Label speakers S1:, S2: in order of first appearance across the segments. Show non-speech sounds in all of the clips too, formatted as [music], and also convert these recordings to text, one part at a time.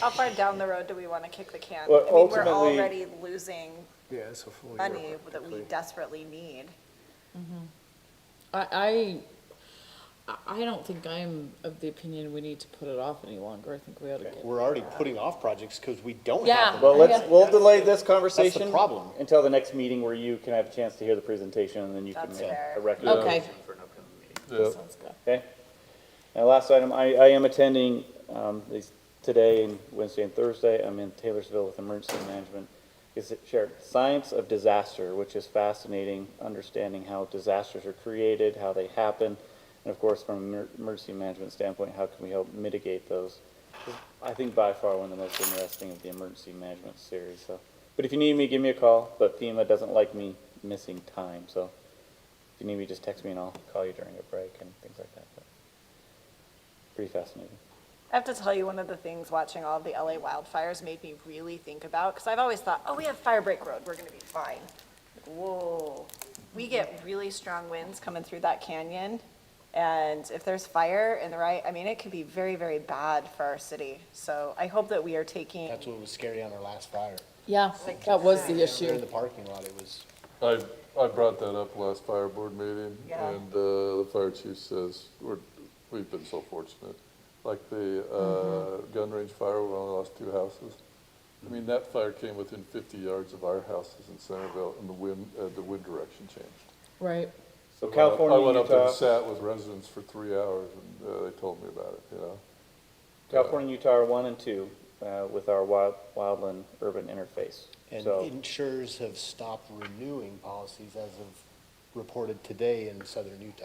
S1: How far down the road do we want to kick the can?
S2: Well,
S1: I mean, we're
S2: ultimately-
S1: already losing
S2: Yeah, it's a full year.
S1: money that we
S2: practically.
S1: desperately need.
S3: I, I, I don't think I'm of the opinion we need to put it off any longer. I think we ought to get.
S4: We're already putting off projects because we don't
S3: Yeah.
S4: have them.
S2: Well, let's, we'll delay this conversation.
S4: problem.
S2: Until the next meeting where you can have a chance to hear the presentation and then you can uh,
S1: That's
S2: make
S1: fair.
S2: a recommendation.
S3: Okay.
S5: Yeah.
S3: Sounds good.
S2: Okay. Now, last item, I, I am attending, um, these, today and Wednesday and Thursday, I'm in Taylorsville with Emergency Management. Is it shared, Science of Disaster, which is fascinating, understanding how disasters are created, how they happen, and of course, from an emer- emergency management standpoint, how can we help mitigate those? This is, I think by far one of the most interesting of the emergency management series, so. But if you need me, give me a call, but FEMA doesn't like me missing time, so if you need me, just text me and I'll call you during a break and things like that. But pretty fascinating.
S1: I have to tell you, one of the things watching all of the LA wildfires made me really think about, because I've always thought, oh, we have Firebreak Road, we're gonna be fine. Like, Whoa, we get really strong winds coming through that canyon, and if there's fire in the right, I mean, it could be very, very bad for our city. So I hope that we are taking,
S4: That's what was scary on our last fire.
S3: Yeah, that was the
S4: In
S3: issue.
S4: the parking lot, it was,
S5: I, I brought that up last fire board meeting,
S1: Yeah.
S5: and uh, the fire chief says, we're, we've been so fortunate. Like the uh, gun range fire, we only lost two houses. I mean, that fire came within 50 yards of our houses in Centerville, and the wind, uh, the wind direction changed.
S3: Right.
S2: So
S5: I went up-
S2: California,
S5: I went up
S2: Utah,
S5: and sat with residents for three hours, and uh, they told me about it, you know? uh,
S2: California, and Utah are one and two uh, with our wild, wildland urban interface.
S4: and
S2: so
S4: insurers have stopped renewing policies as of reported today in southern Utah.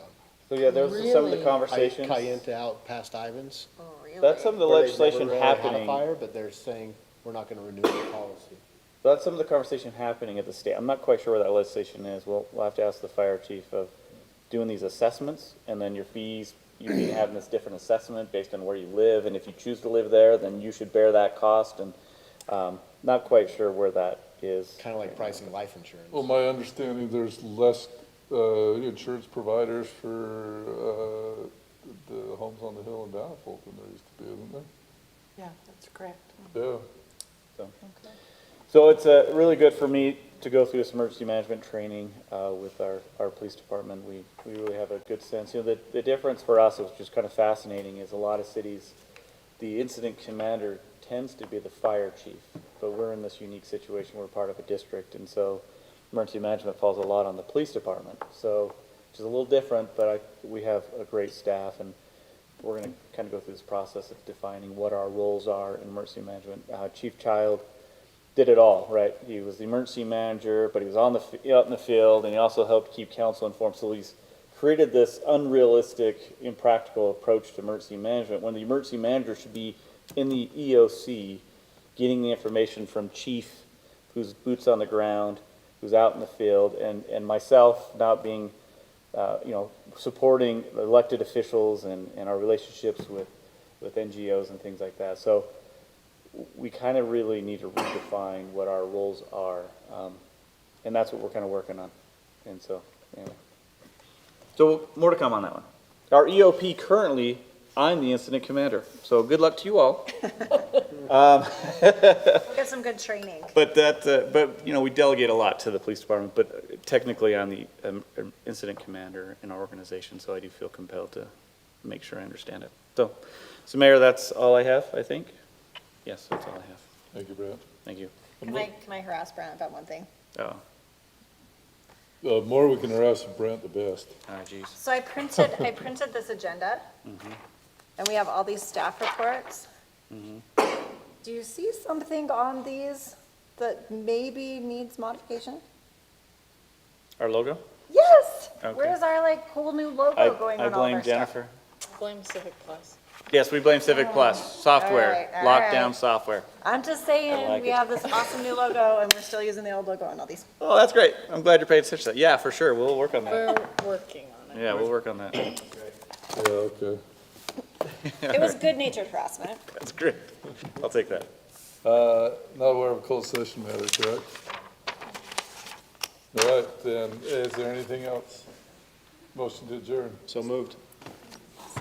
S2: so yeah, those are some of the
S3: Really?
S4: Cay-
S2: conversations.
S4: Cayenta out past Ivans.
S1: oh, really.
S2: That's some of the
S4: where they've
S2: legislation
S4: never really had a
S2: happening.
S4: Fire, but they're saying, we're not gonna renew the policy.
S2: That's some of the conversation happening at the state. I'm not quite sure where that legislation is. We'll, we'll have to ask the fire chief of doing these assessments and then your fees, you can have this different assessment based on where you live. And if you choose to live there, then you should bear that cost and, um, not quite sure where that is.
S4: Kinda like pricing life insurance.
S5: Well, my understanding, there's less uh, insurance providers for uh, the homes on the hill in Bountiful than there used to be, isn't there?
S3: Yeah, that's correct.
S5: Yeah.
S2: So it's uh, really good for me to go through this emergency management training uh, with our, our police department. We, we really have a good sense. You know, the, the difference for us, which is kind of fascinating, is a lot of cities, the incident commander tends to be the fire chief, but we're in this unique situation. We're part of a district, and so emergency management falls a lot on the police department. So, which is a little different, but I, we have a great staff, and we're going to kind of go through this process of defining what our roles are in emergency management. Uh, Chief Child did it all, right? He was the emergency manager, but he was on the f- out in the field, and he also helped keep council informed. So he's created this unrealistic, impractical approach to emergency management when the emergency manager should be in the EOC, getting the information from chief, who's boots on the ground, who's out in the field, and and myself not being, uh, you know, supporting elected officials and and our relationships with with NGOs and things like that. So we kind of really need to redefine what our roles are, um, and that's what we're kind of working on. And so, anyway. So more to come on that one. Our EOP currently, I'm the incident commander. So good luck to you all.
S1: We'll Get some good training.
S2: But that, uh, but you know, we delegate a lot to the police department. But technically, I'm the um, um, incident commander in our organization, so I do feel compelled to make sure I understand it. So, so Mayor, that's all I have. I think. Yes, that's all I have.
S5: Thank you, Brad.
S2: Thank you.
S1: Can I, can I harass Brent about one thing?
S2: Oh,
S5: The more we can harass Brent, the best.
S2: oh, geez.
S1: So I printed, I printed this agenda,
S2: Mm-hmm.
S1: and we have all these staff reports.
S2: Mm-hmm.
S1: Do you see something on these that maybe needs modification?
S2: Our logo.
S1: Yes!
S2: Okay.
S1: Where's our like whole new
S2: I,
S1: logo Oh, going
S2: I
S1: on all of
S2: blame
S1: our stuff? Oh,
S2: Jennifer.
S3: Blame Civic Plus.
S2: Yes, we blame Civic Plus, software,
S1: All right, all
S2: lockdown
S1: right.
S2: software.
S1: I'm just
S2: I
S1: saying,
S2: like
S1: we
S2: it.
S1: have this awesome new logo, and we're still using the old logo on all
S2: [laughs]
S1: these.
S2: Oh, that's great. I'm glad you're paying attention to that. Yeah, for sure. We'll work on that.
S3: We're working on it.
S2: Yeah, we'll work on that.
S5: Yeah, okay.
S1: It was good natured harassment.
S2: [laughs] That's great. I'll take that.
S5: Uh, Not aware of a closed session matter, correct? All right, then, is there anything else? Motion to adjourn.
S4: So moved.